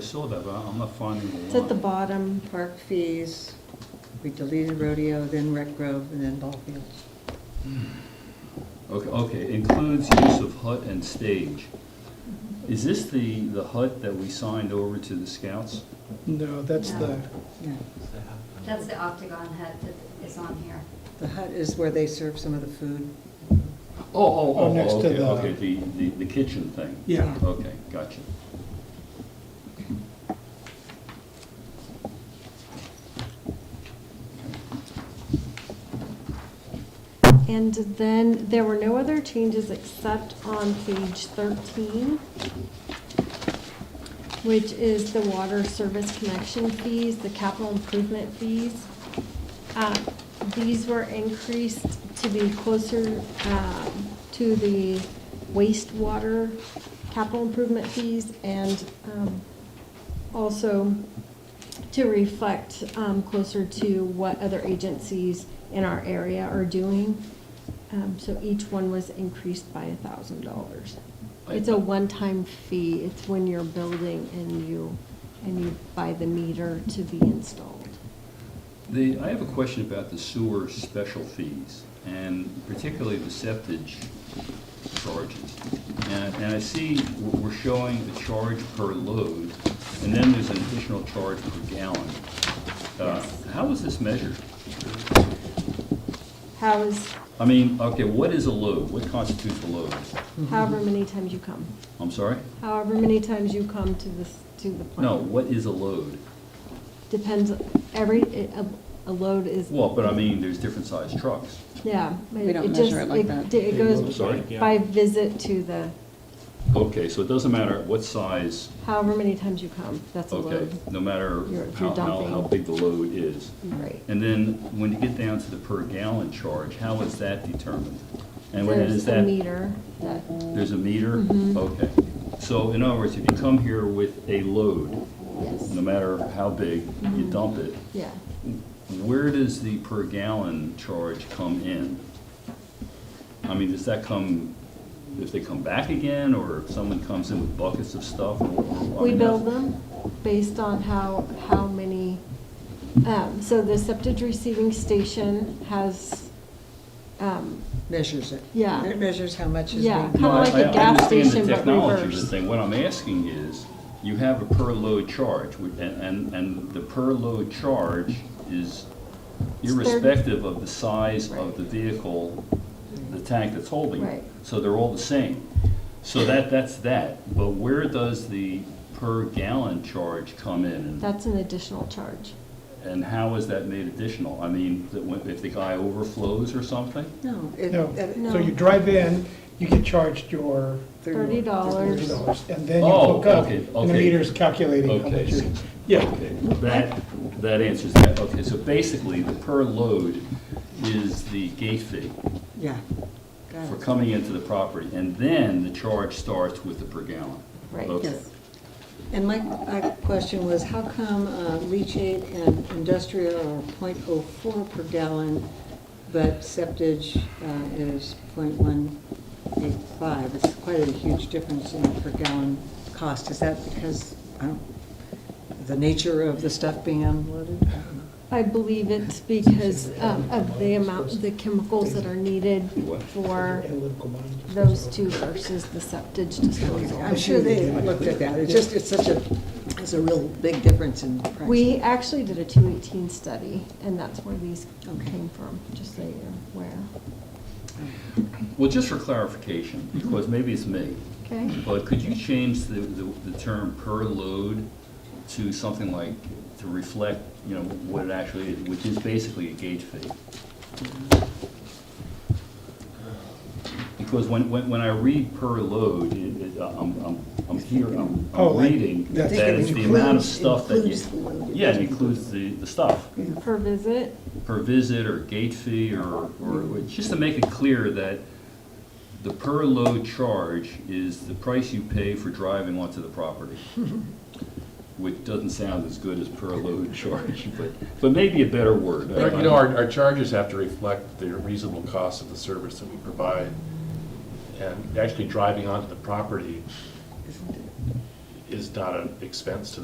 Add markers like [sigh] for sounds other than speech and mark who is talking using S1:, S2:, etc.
S1: I saw that, but I'm not finding the
S2: It's at the
S1: line.
S2: bottom, park fees, we deleted rodeo, then rec grove, and then ball fields.
S1: Okay, okay, includes use of hut and stage. Is this the, the hut that we signed over to the scouts?
S3: No, that's the,
S2: Yeah,
S4: That's the octagon hut that is on here.
S2: the hut is where they serve some of the food.
S1: Oh, oh,
S3: Oh,
S1: oh,
S3: next to
S1: okay,
S3: the-
S1: okay, the, the, the kitchen thing.
S3: yeah,
S1: Okay, gotcha.
S5: And then there were no other changes except on page 13, which is the water service connection fees, the capital improvement fees. Uh, These were increased to be closer um, to the wastewater capital improvement fees and um, also to reflect um, closer to what other agencies in our area are doing. Um, So each one was increased by a thousand dollars. It's a one-time fee, it's when you're building and you, and you buy the meter to be installed.
S1: The, I have a question about the sewer special fees, and particularly the septage charges. And, and I see w- we're showing a charge per load, and then there's an additional charge per gallon. Uh, How is this measured?
S5: How is,
S1: I mean, okay, what is a load? What constitutes a load?
S5: however many times you come,
S1: I'm sorry?
S5: however many times you come to this, to the plant.
S1: No, what is a load?
S5: Depends, every, a, a load is,
S1: Well, but I mean, there's different sized trucks.
S5: yeah.
S2: We don't
S5: it
S2: measure
S5: just-
S2: it like that.
S5: It
S1: I'm
S5: goes
S1: sorry?
S5: by visit to the,
S1: Okay, so it doesn't matter what size,
S5: however many times you come, that's a
S1: okay,
S5: load.
S1: no matter
S5: You're- you're
S1: how, how, how
S5: dumping.
S1: big the load is.
S5: Right.
S1: And then when you get down to the per gallon charge, how is that determined? And when
S5: There's
S1: is
S5: a
S1: that,
S5: meter that,
S1: there's a meter?
S5: Mhm.
S1: Okay. So in other words, if you come here with a load,
S5: yes,
S1: no matter how big, you dump it,
S5: yeah.
S1: where does the per gallon charge come in? I mean, does that come, if they come back again, or if someone comes in with buckets of stuff? or- or- I
S5: We
S1: mean,
S5: build them based on how, how many, um, so the septic receiving station has, um,
S2: Measures it.
S5: Yeah.
S2: It measures how much is
S5: Yeah.
S2: being,
S1: No,
S5: Kinda
S1: I-
S5: like a
S1: I-
S5: gas
S1: I understand
S5: station,
S1: the
S5: but
S1: technology of
S5: reversed.
S1: the thing, what I'm asking is, you have a per load charge, with- and, and, and the per load charge is
S5: It's thirty-
S1: irrespective of the size of
S5: Right.
S1: the vehicle, the tank that's holding it.
S5: Right.
S1: So they're all the same. So that, that's that, but where does the per gallon charge come in? and-
S5: that's an additional charge.
S1: And how is that made additional? I mean, that when- if the guy overflows or something?
S2: no. it-
S3: no.
S2: it-
S5: No.
S3: So you drive in, you get charged your
S5: Thirty
S3: thirty
S5: dollars.
S3: dollars, and then you
S1: Oh,
S3: hook up,
S1: okay,
S3: and the
S1: okay.
S3: meter's calculating how
S1: Okay.
S3: much you're, yeah.
S1: Okay, that, that answers that. Okay, so basically, the per load is the gate fee
S2: Yeah. Got
S1: for
S2: it.
S1: coming into the property, and then the charge starts with the per gallon.
S5: Right.
S1: Okay.
S2: Yes. And my, my question was, how come uh, leachate and industrial are 0.04 per gallon, but septage uh, is 0.185? It's quite a huge difference in per gallon cost. Is that because, I don't, the nature of the stuff being unloaded? I don't know.
S5: I believe it's because um, of the amount, the chemicals that are needed
S1: What?
S5: for
S3: Analytical mind.
S5: those two versus the septic disposal.
S2: I'm sure they looked at that. It's just, it's such a, it's a real big difference in price.
S5: We actually did a two eighteen study, and that's where these
S2: Okay.
S5: came from, just so you're aware.
S1: Well, just for clarification, because maybe it's me,
S5: Okay?
S1: but could you change the, the the term per load to something like, to reflect, you know, what it actually is, which is basically a gauge fee? Because when, when, when I read per load, it, it, I'm, I'm, I'm here, I'm,
S3: Oh,
S1: I'm
S3: like
S1: reading
S3: that
S1: that it's the amount of stuff that
S2: Includes- includes the
S1: you.
S2: load.
S1: Yeah, it includes the, the stuff,
S5: Per visit,
S1: per visit or gate fee or, or, just to make it clear that the per load charge is the price you pay for driving onto the property. Which doesn't sound as good as per load [laughs] charge, but, but maybe a better word.
S6: But, You know, our, our charges have to reflect the reasonable cost of the service that we provide. And actually driving onto the property is not an expense to